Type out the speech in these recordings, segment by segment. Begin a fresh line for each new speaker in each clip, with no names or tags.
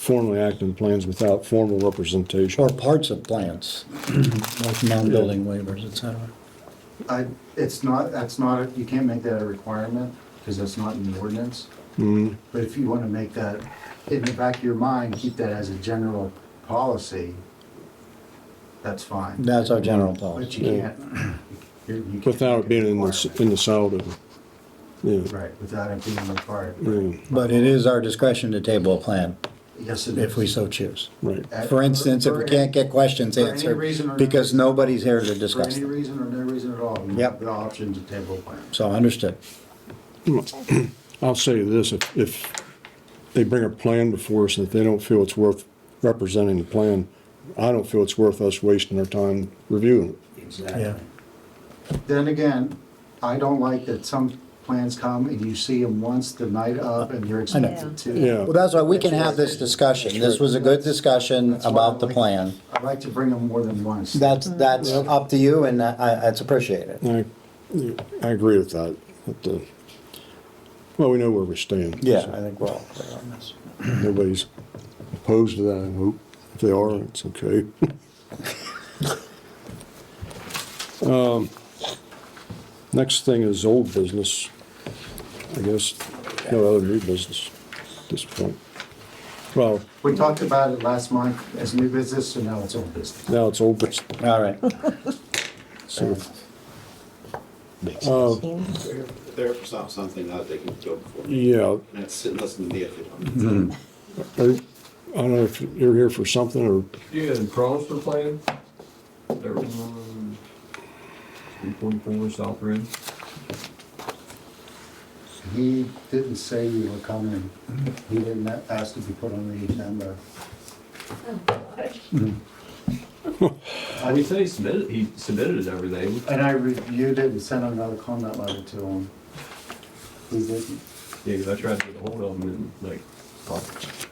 formally act on plans without formal
or
representation.
parts of plants, like non-building waivers, et cetera.
I, it's not, that's not, a- you can't make that a requirement, because that's not in the ordinance. But if you want to make that, in the back of your mind, keep that as a general policy, that's fine.
That's our general
But
policy.
you can't. you- you can't
Without it
make it
being
a
in the, s- in
requirement.
the solid of, yeah,
Right, without it being required.
yeah,
But it is our discretion to table a plan,
Yes, it is.
if we so choose.
right.
At-
For instance, if
for
we
any-
can't get questions
for any reason
answered,
or-
because nobody's here to
For
discuss
any
them.
reason or no reason at all. you
Yep.
have The option to table plans.
So understood.
I'll say this, if, if they bring a plan before us, and if they don't feel it's worth representing the plan, I don't feel it's worth us wasting our time reviewing it.
Exactly. Then again, I don't like that some plans come and you see them once the night of and you're expected to.
Yeah.
Well, that's why we can have this discussion. This was a good discussion
That's why I
about the
like-
plan.
I like to bring them more than once.
That's, that's up to you and I, I- it's appreciated.
I, I agree with that, but, uh, well, we know where we stand.
Yeah, I think we're all clear on this.
Nobody's opposed to that, I hope. If they are, it's okay. Um, Next thing is old business. I guess, no other new business at this point. Well,
We talked about it last month as new business, so now it's old business.
now it's uh, old business,
All right.
so,
All
There for some- something that they can go for.
yeah.
And sit and listen to me if they want.
I I don't know if you're here for something or
You had problems with playing? There was um, 344 South Rim.
He didn't say you were coming. He didn't ask to be put on the agenda.
He said he submitted, he submitted it every day.
And I reviewed it and sent another comment letter to him. He didn't,
Yeah, 'cause I tried to get ahold of him and like, fuck,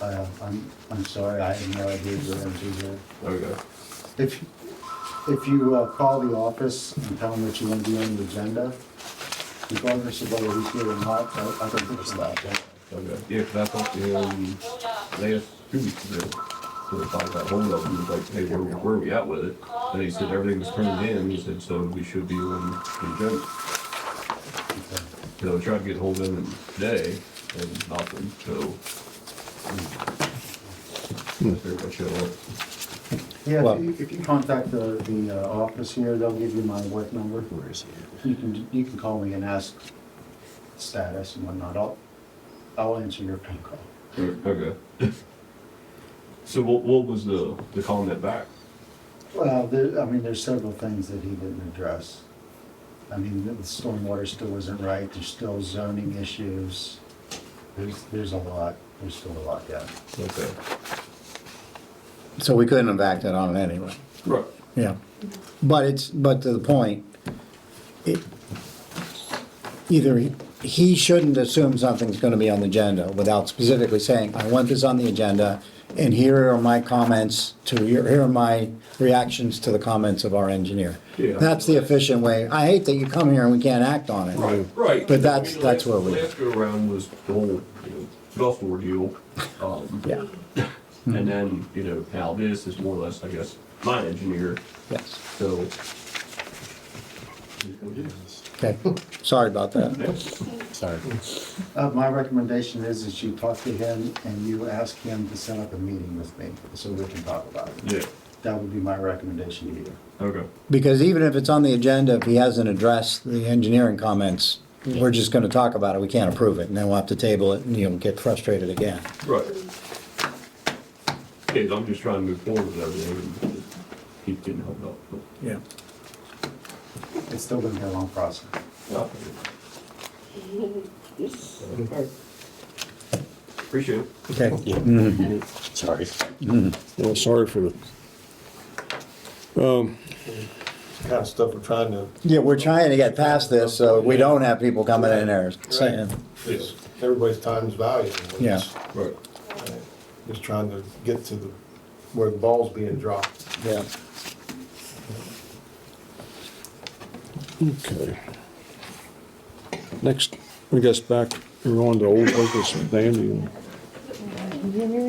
uh, I'm, I'm sorry, I had no idea you were going to do that.
there we go.
If, if you uh, call the office and tell them that you want to be on the agenda, regardless of whether he's here or not, I I don't think it's about that.
Okay. Yeah, 'cause I talked to him last two weeks ago. So if I got hold of him, he was like, hey, where, where are we at with it? And he said everything was turned in. He said, so we should be on the agenda. So I tried to get hold of him today and nothing, so.
Hmm.
Everybody shut up.
Yeah,
Well-
if you- if you contact the, the uh, office here, they'll give you my work number. Where is it? You can, you can call me and ask status and whatnot. I'll, I'll answer your phone call.
Okay. So what, what was the, the comment back?
Well, there, I mean, there's several things that he didn't address. I mean, the stormwater still isn't right, there's still zoning issues. There's, there's a lot, there's still a lot, yeah.
Okay.
So we couldn't have acted on it anyway.
Right.
Yeah, but it's, but to the point, it, either he- he shouldn't assume something's gonna be on the agenda without specifically saying, I want this on the agenda, and here are my comments to, your- here are my reactions to the comments of our engineer.
Yeah.
That's the efficient way. I hate that you come here and we can't act on it.
Right, right.
Hmm. But that's-
I mean,
that's
last-
where we-
Last go around was the whole, you know, golf war deal. Um,
Yeah,
and then, you know, now this is more or less, I guess, my engineer,
yes,
so.
okay, sorry about that.
Sorry.
Uh, my recommendation is that you talk to him and you ask him to set up a meeting with me, so we can talk about it.
Yeah,
That would be my recommendation to you.
okay.
Because even if it's on the agenda, if he hasn't addressed the engineering comments, we're just gonna talk about it, we can't approve it, and then we'll have to table it, and you'll get frustrated again.
Right. Yeah, I'm just trying to move forward with everything and just keep getting held up.
Yeah.
It's still gonna be a long process.
Okay. Appreciate it.
Okay,
Sorry.
Well, sorry for the,
kind of stuff we're trying to,
yeah, we're trying to get past this, so we don't have people coming in there saying,
it's- everybody's time is valuable.
yeah,
Right.
Just trying to get to the, where the ball's being dropped.
yeah.
okay. Next, I guess back, we're on to old business, Dan, you-
Junior